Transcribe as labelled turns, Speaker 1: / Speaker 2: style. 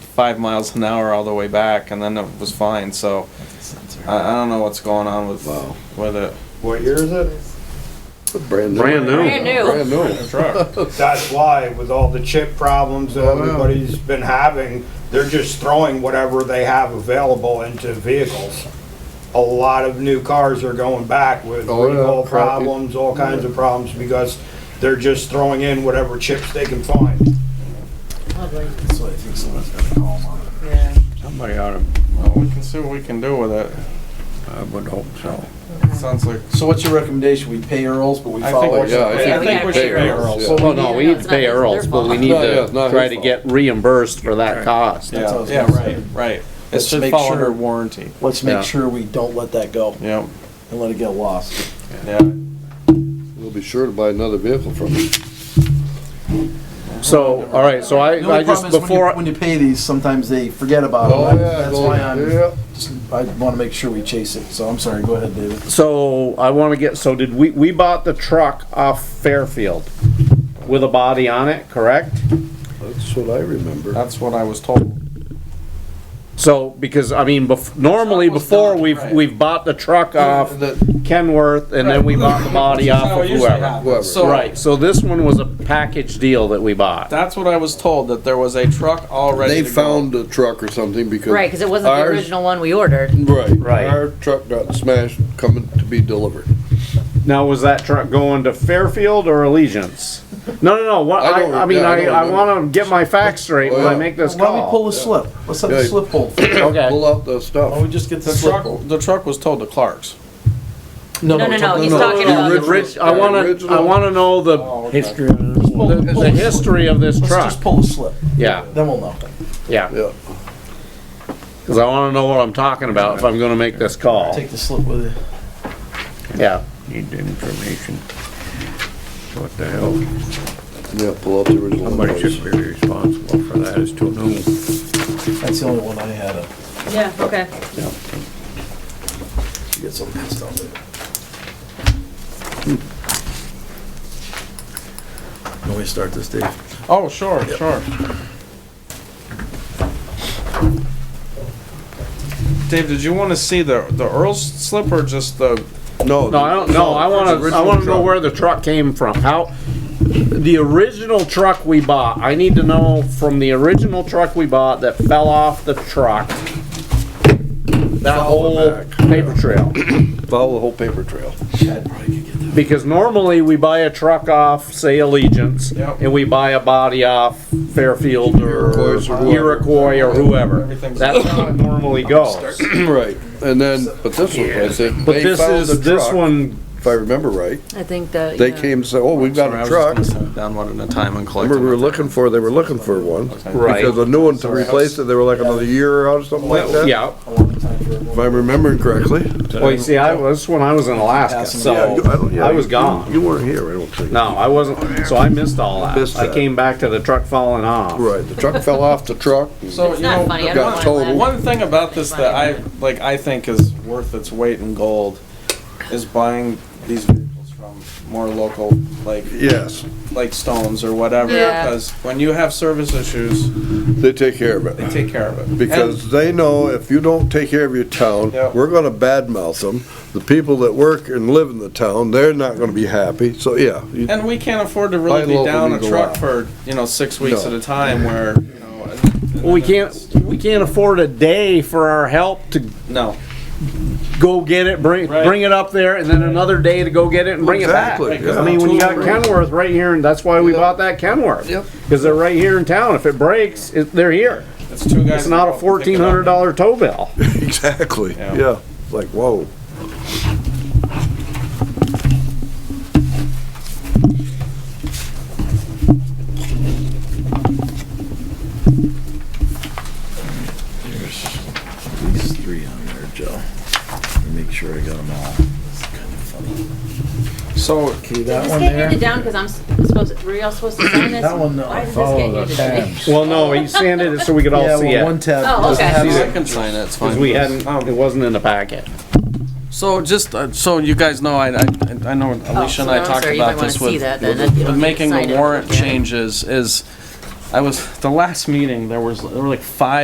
Speaker 1: five miles an hour all the way back, and then it was fine. So I, I don't know what's going on with
Speaker 2: Wow.
Speaker 1: with it.
Speaker 3: What year is it?
Speaker 2: Brand new.
Speaker 4: Brand new. Brand
Speaker 5: new.
Speaker 2: Brand new.
Speaker 1: Truck.
Speaker 3: That's why, with all the chip problems that
Speaker 2: Oh, yeah.
Speaker 3: everybody's been having, they're just throwing whatever they have available into vehicles. A lot of new cars are going back with
Speaker 2: Oh, yeah.
Speaker 3: recall problems, all kinds of problems, because they're just throwing in whatever chips they can find.
Speaker 6: That's what I think someone's gonna call him on.
Speaker 5: Yeah.
Speaker 2: Somebody ought to,
Speaker 1: Well, we can see what we can do with it.
Speaker 2: I would hope so.
Speaker 1: Sounds like
Speaker 6: So what's your recommendation? We pay Earls, but we
Speaker 1: I think
Speaker 6: follow.
Speaker 1: we should,
Speaker 2: Oh, yeah, I
Speaker 1: I
Speaker 5: think
Speaker 1: think we
Speaker 5: we
Speaker 1: should
Speaker 5: have
Speaker 1: pay
Speaker 2: to.
Speaker 1: Earl's.
Speaker 2: Yeah.
Speaker 7: Well, no, we need to pay
Speaker 5: Yeah, no,
Speaker 7: Earls,
Speaker 5: it's not-
Speaker 7: but we
Speaker 5: it's
Speaker 7: need
Speaker 2: their fault. No, yeah,
Speaker 7: to
Speaker 2: it's not
Speaker 7: try
Speaker 2: his
Speaker 7: to
Speaker 2: fault.
Speaker 7: get reimbursed for that cost.
Speaker 6: That's what I
Speaker 1: Yeah,
Speaker 6: was
Speaker 1: yeah,
Speaker 6: gonna
Speaker 1: right,
Speaker 6: say.
Speaker 1: right. It
Speaker 6: Let's
Speaker 1: should
Speaker 6: make
Speaker 1: follow
Speaker 6: sure-
Speaker 1: under warranty.
Speaker 6: Let's
Speaker 2: Yeah.
Speaker 6: make sure we don't let that go
Speaker 1: Yep,
Speaker 6: and let it get lost.
Speaker 1: yeah.
Speaker 2: We'll be sure to buy another vehicle from him.
Speaker 7: So, all right, so
Speaker 6: The
Speaker 7: I, I
Speaker 6: only
Speaker 7: just,
Speaker 6: problem is when you-
Speaker 7: before,
Speaker 6: When you pay these, sometimes they forget about
Speaker 2: Oh,
Speaker 6: it.
Speaker 2: yeah,
Speaker 6: That's
Speaker 2: go-
Speaker 6: why I'm,
Speaker 2: yeah.
Speaker 6: just, I wanna make sure we chase it. So I'm sorry, go ahead, David.
Speaker 7: so I wanna get, so did we, we bought the truck off Fairfield with a body on it, correct?
Speaker 2: That's what I remember.
Speaker 1: That's what I was told.
Speaker 7: So, because, I mean, bef, normally
Speaker 1: Truck was
Speaker 7: before,
Speaker 1: done,
Speaker 7: we've,
Speaker 1: right.
Speaker 7: we've bought the truck
Speaker 2: Uh,
Speaker 7: off
Speaker 2: That-
Speaker 7: Kenworth and then we bought the
Speaker 1: Which
Speaker 7: body
Speaker 1: is
Speaker 7: off
Speaker 1: how
Speaker 7: of
Speaker 1: it usually
Speaker 7: whoever.
Speaker 1: happens.
Speaker 2: Whoever.
Speaker 1: So-
Speaker 7: Right, so this one was a package deal that we bought.
Speaker 1: That's what I was told, that there was a truck already.
Speaker 2: They found a truck or something because.
Speaker 5: Right, because it wasn't the
Speaker 2: ours-
Speaker 5: original one we ordered.
Speaker 2: Right.
Speaker 7: Right.
Speaker 2: Our truck got smashed coming to be delivered.
Speaker 7: Now, was that truck going to Fairfield or Allegiance? No, no, no. What,
Speaker 2: I
Speaker 7: I,
Speaker 2: don't-
Speaker 7: I, mean,
Speaker 2: yeah, I
Speaker 7: I,
Speaker 2: don't
Speaker 7: I,
Speaker 2: remember.
Speaker 7: want to get my facts straight when
Speaker 2: Well,
Speaker 7: I make this
Speaker 6: Why don't we pull
Speaker 7: call.
Speaker 6: the slip? Let's have the
Speaker 2: Yeah.
Speaker 6: slip hold.
Speaker 7: Okay.
Speaker 2: Pull out the stuff.
Speaker 6: Why don't Oh, we just get the
Speaker 1: The
Speaker 6: slip?
Speaker 1: truck, the truck was told to Clark's.
Speaker 5: No, no,
Speaker 6: we're
Speaker 5: no,
Speaker 6: talking-
Speaker 5: he's talking
Speaker 2: the
Speaker 5: about.
Speaker 7: The rich- I want to. I want to know the
Speaker 6: History of
Speaker 7: the, the history of this
Speaker 6: Oh, Let's
Speaker 7: truck.
Speaker 6: just pull the slip,
Speaker 7: Yeah,
Speaker 6: then we'll know.
Speaker 7: yeah.
Speaker 2: Yeah.
Speaker 7: Because I want to know what I'm talking about if I'm going to make this call.
Speaker 6: Take the slip with you.
Speaker 7: Yeah.
Speaker 2: Need information. What the hell? Yeah, pull out the original. Somebody should be responsible for that, it's too new.
Speaker 6: That's the only one I had uh, up.
Speaker 5: Yeah, okay.
Speaker 6: You get some good stuff Hmm. there. Can we start this, Dave?
Speaker 1: Oh, sure, sure. Dave, did you want to see the, the Earl's slip or just the,
Speaker 2: No.
Speaker 7: No, I don't. No, I want to. I want to know where the truck came from. How. The original truck we bought, I need to know from the original truck we bought that fell off the truck. That whole paper trail.
Speaker 2: Follow the whole paper trail.
Speaker 7: Because normally we buy a truck off, say Allegiance,
Speaker 1: Yep.
Speaker 7: and we buy a body off Fairfield or
Speaker 2: Iroquois or whoever.
Speaker 7: Iroquois or whoever.
Speaker 1: Everything's-
Speaker 7: That's how it normally goes.
Speaker 2: Right, and then, but this one, I think,
Speaker 7: But
Speaker 2: they
Speaker 7: this
Speaker 2: found the
Speaker 7: is, this
Speaker 2: truck,
Speaker 7: one,
Speaker 2: If I remember right,
Speaker 5: I think that.
Speaker 2: they
Speaker 5: yeah.
Speaker 2: came and said, oh, we've got
Speaker 1: Sorry, I
Speaker 2: a
Speaker 1: was
Speaker 2: truck.
Speaker 1: just gonna sit down one at a time and collect
Speaker 2: Remember, we were
Speaker 1: them.
Speaker 2: looking for, they were looking for one.
Speaker 7: Right.
Speaker 2: Because a new one to replace it, they were like another year out or something like that.
Speaker 7: yeah.
Speaker 6: A long time for everyone.
Speaker 2: If I'm remembering correctly.
Speaker 7: Well, you see, I, this one, I was in Alaska,
Speaker 2: Yeah, you-
Speaker 7: so
Speaker 2: don't- yeah,
Speaker 7: Oh, I was
Speaker 2: you-
Speaker 7: gone.
Speaker 2: You weren't here, I don't think.
Speaker 7: No, I wasn't, so I missed all that.
Speaker 2: Missed
Speaker 7: I
Speaker 2: that.
Speaker 7: came back to the truck falling off.
Speaker 2: Right, the truck fell off the truck. and-
Speaker 1: So, you
Speaker 5: It's not
Speaker 1: know,
Speaker 5: funny,
Speaker 2: got
Speaker 5: I don't want to
Speaker 2: total.
Speaker 5: laugh.
Speaker 1: One thing about this that I, like, I think is worth its weight in gold is buying these vehicles from more local, like,
Speaker 2: Yes,
Speaker 1: like Stones or whatever.
Speaker 5: Yeah.
Speaker 1: Because when you have service issues,
Speaker 2: they take care of
Speaker 1: they
Speaker 2: it.
Speaker 1: take care of it.
Speaker 2: Because they know if you don't take care of your town,
Speaker 1: Yep.
Speaker 2: we're gonna badmouth them. The people that work and live in the town, they're not gonna be happy, so, yeah. you-
Speaker 1: And we can't afford to
Speaker 2: Buy
Speaker 1: really be
Speaker 2: local,
Speaker 1: down
Speaker 2: we
Speaker 1: a
Speaker 2: go
Speaker 1: truck
Speaker 2: out.
Speaker 1: for, you know, six weeks
Speaker 2: No.
Speaker 1: at a time where, you know. and- and
Speaker 7: Well, We
Speaker 1: then it's-
Speaker 7: can't, we can't afford a day for our help to
Speaker 1: No.
Speaker 7: go get it, bring,
Speaker 1: Right.
Speaker 7: bring it up there, and then another day to go get it and bring
Speaker 2: Exactly,
Speaker 7: it back.
Speaker 2: yeah.
Speaker 7: I mean, when you got
Speaker 1: Totally.
Speaker 7: Kenworth right here, and that's why we
Speaker 2: Yep.
Speaker 7: bought that Kenworth.
Speaker 2: Yep.
Speaker 7: Because they're right here in town. If it breaks, it, they're here.
Speaker 1: It's two guys.
Speaker 7: It's not a
Speaker 1: that go up and pick
Speaker 7: fourteen
Speaker 1: it up.
Speaker 7: hundred dollar tow bill.
Speaker 2: Exactly,
Speaker 1: Yeah.
Speaker 2: yeah, like, whoa.
Speaker 6: These three on there, Joe. Let me Make sure I got them all. It's kind of funny.
Speaker 1: So,
Speaker 6: Okay,
Speaker 5: Did
Speaker 6: that
Speaker 5: this
Speaker 6: one
Speaker 5: get handed
Speaker 6: there.
Speaker 5: down because I'm s- supposed, to- were y'all supposed to sign this?
Speaker 6: That one, no.
Speaker 5: Why did this
Speaker 6: Follow
Speaker 5: get
Speaker 6: the
Speaker 5: handed down?
Speaker 6: tabs.
Speaker 7: Well, no, he sanded it so we could all
Speaker 6: Yeah,
Speaker 7: see
Speaker 6: well, one
Speaker 7: it.
Speaker 6: tab.
Speaker 5: Oh,
Speaker 6: doesn't
Speaker 5: okay.
Speaker 6: have
Speaker 1: I
Speaker 6: it.
Speaker 1: can sign it, it's
Speaker 7: Because
Speaker 1: fine.
Speaker 7: we hadn't, it wasn't in the packet.
Speaker 1: So just, uh, so you guys know, I, I, I know Alicia and I
Speaker 5: Oh, so
Speaker 1: talked
Speaker 5: sorry, you might
Speaker 1: about
Speaker 5: wanna
Speaker 1: this
Speaker 5: see
Speaker 1: with,
Speaker 5: that then, if you
Speaker 1: with
Speaker 5: don't
Speaker 1: making
Speaker 5: decide
Speaker 1: the
Speaker 5: it,
Speaker 1: warrant
Speaker 5: yeah.
Speaker 1: changes is, I was, the last meeting, there was, there were like five